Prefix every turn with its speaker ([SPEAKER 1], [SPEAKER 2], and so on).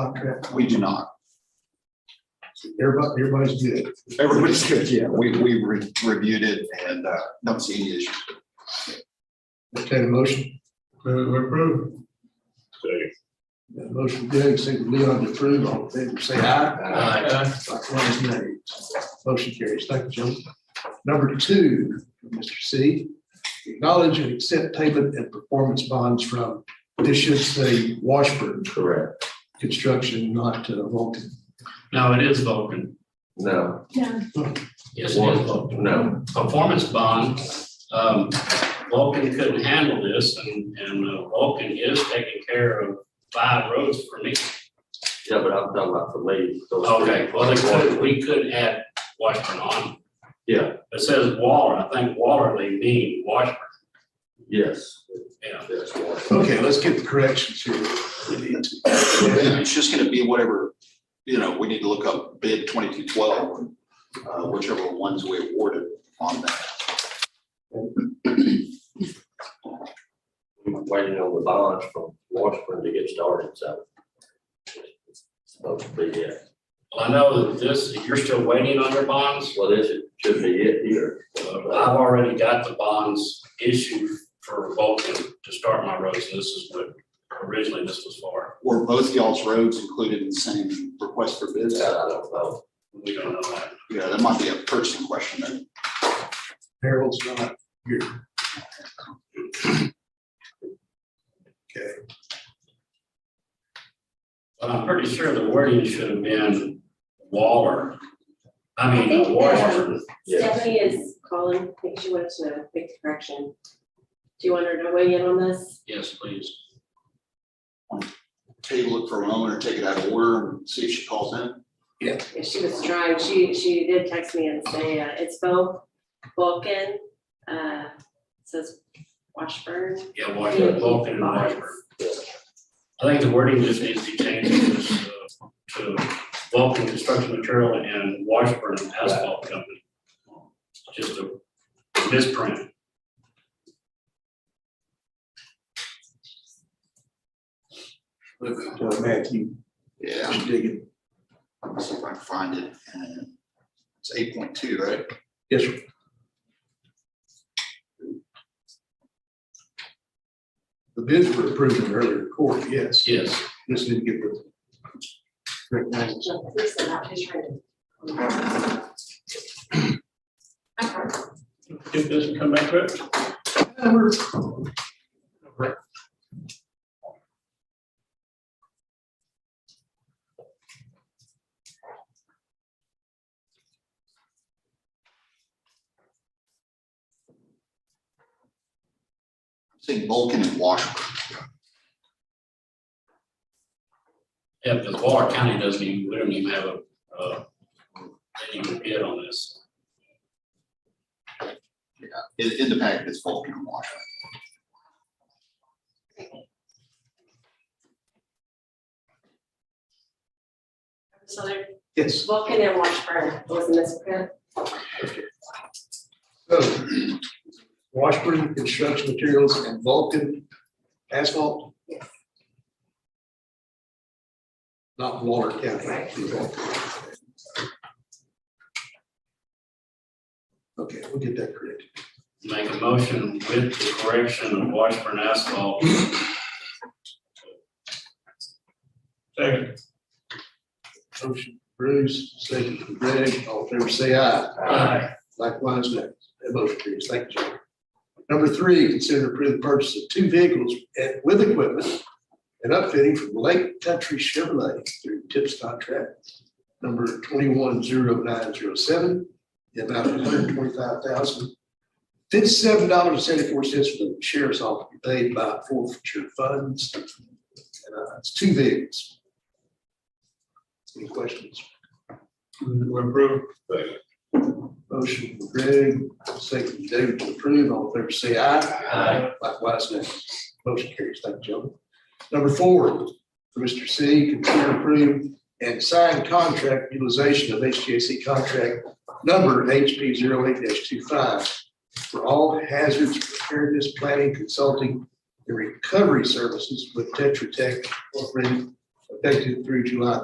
[SPEAKER 1] contract?
[SPEAKER 2] We do not.
[SPEAKER 1] Everybody, everybody's good.
[SPEAKER 2] Everybody's good, yeah. We, we re- reviewed it and uh, don't see any issues.
[SPEAKER 1] Entertain a motion. Move to approve. Got a Motion Greg, second Leon to approve, all in favor, say aye.
[SPEAKER 3] Uh,
[SPEAKER 1] Aye. Likewise, nay. Motion carries. Thank you, gentlemen. Number two, from Mr. C, acknowledge and accept payment and performance bonds from, this should say Washburn
[SPEAKER 4] Correct.
[SPEAKER 1] Construction, not uh, Vulcan.
[SPEAKER 3] No, it is Vulcan.
[SPEAKER 4] No,
[SPEAKER 5] Yeah,
[SPEAKER 3] Yes, it is Vulcan.
[SPEAKER 4] no.
[SPEAKER 3] Performance bond, um, Vulcan couldn't handle this and, and uh, Vulcan is taking care of five roads for me.
[SPEAKER 4] Yeah, but I'm talking about the lead. those three.
[SPEAKER 3] Okay, well, they could, we could add Washburn on.
[SPEAKER 4] Yeah.
[SPEAKER 3] It says Waller, I think Waller they mean Washburn,
[SPEAKER 4] Yes,
[SPEAKER 3] yeah.
[SPEAKER 4] that's one.
[SPEAKER 1] Okay, let's get the corrections here. We need to.
[SPEAKER 2] It's just gonna be whatever, you know, we need to look up bid twenty-two twelve, uh, whichever ones we awarded on that.
[SPEAKER 4] I'm Waiting on the bonds from Washburn to get started, so. it's Supposed to be it.
[SPEAKER 3] Well, I know that this, you're still waiting on your bonds.
[SPEAKER 4] Well, this is- should be it here.
[SPEAKER 3] Uh, I've already got the bonds issued for Vulcan to start my roads, and this is what originally this was for.
[SPEAKER 2] Were both y'all's roads included in the same request for bids?
[SPEAKER 4] That I don't know.
[SPEAKER 3] We don't know that.
[SPEAKER 2] Yeah, that might be a purchasing question then.
[SPEAKER 1] Harold's not here.
[SPEAKER 3] But I'm pretty sure the wording should have been Waller. I
[SPEAKER 5] I
[SPEAKER 3] mean,
[SPEAKER 5] think,
[SPEAKER 3] Washburn.
[SPEAKER 4] Yeah.
[SPEAKER 5] Stephanie is calling, I think she wanted to know, make the correction. Do you want her to weigh in on this?
[SPEAKER 3] Yes, please.
[SPEAKER 2] Table it for a moment or take it out of order and see if she calls in.
[SPEAKER 5] If she was trying, she, she did text me and say, uh, it's both Vulcan, uh, says Washburn.
[SPEAKER 3] Yeah, Washburn, Vulcan and Washburn. I think the wording just needs to be changed to, this, uh, to Vulcan Construction Material and Washburn Asphalt Company. Just a misprint.
[SPEAKER 1] Uh, Matthew,
[SPEAKER 2] Yeah,
[SPEAKER 1] just digging.
[SPEAKER 2] let me see if I can find it. And It's eight point two, right?
[SPEAKER 1] Yes, sir. The bids were approved in earlier court, yes.
[SPEAKER 3] Yes.
[SPEAKER 1] Just need to get the. correct name.
[SPEAKER 3] If this can come back to it.
[SPEAKER 2] Seeing Vulcan and Washburn.
[SPEAKER 3] Yeah, because Waller County doesn't even, we don't even have a, uh, they didn't even bid on this.
[SPEAKER 2] In, in the packet, it's Vulcan and Washburn.
[SPEAKER 5] So they're
[SPEAKER 1] Yes.
[SPEAKER 5] Vulcan and Washburn, was a misprint.
[SPEAKER 1] So Washburn Construction Materials and Vulcan Asphalt.
[SPEAKER 5] Yes.
[SPEAKER 1] Not Waller County.
[SPEAKER 5] Right.
[SPEAKER 1] Okay, we'll get that correct.
[SPEAKER 3] Make a motion with the correction of Washburn asphalt. Second.
[SPEAKER 1] Motion Bruce, second from Greg, all in favor, say aye.
[SPEAKER 3] Aye.
[SPEAKER 1] Likewise, nay. That motion carries. Thank you, John. Number three, consider approving the purchase of two vehicles and- with equipment and upfitting from Lake Country Chevrolet through TIPS contract number twenty-one zero nine zero seven, the amount of one hundred twenty-five thousand fifty-seven dollars and seventy-four cents for the sheriff's office paid by forfeiture funds. And, uh, It's two vehicles. Any questions? Motion from Greg, second from David to approve, all in favor say aye.
[SPEAKER 3] Aye.
[SPEAKER 1] Likewise, nay. Motion carries, thank you, gentlemen. Number four, for Mr. C, consider approve and sign contract utilization of HGAC contract number HP 8 25 for all hazards preparedness planning consulting and recovery services with Tetra Tech Incorporated effective through July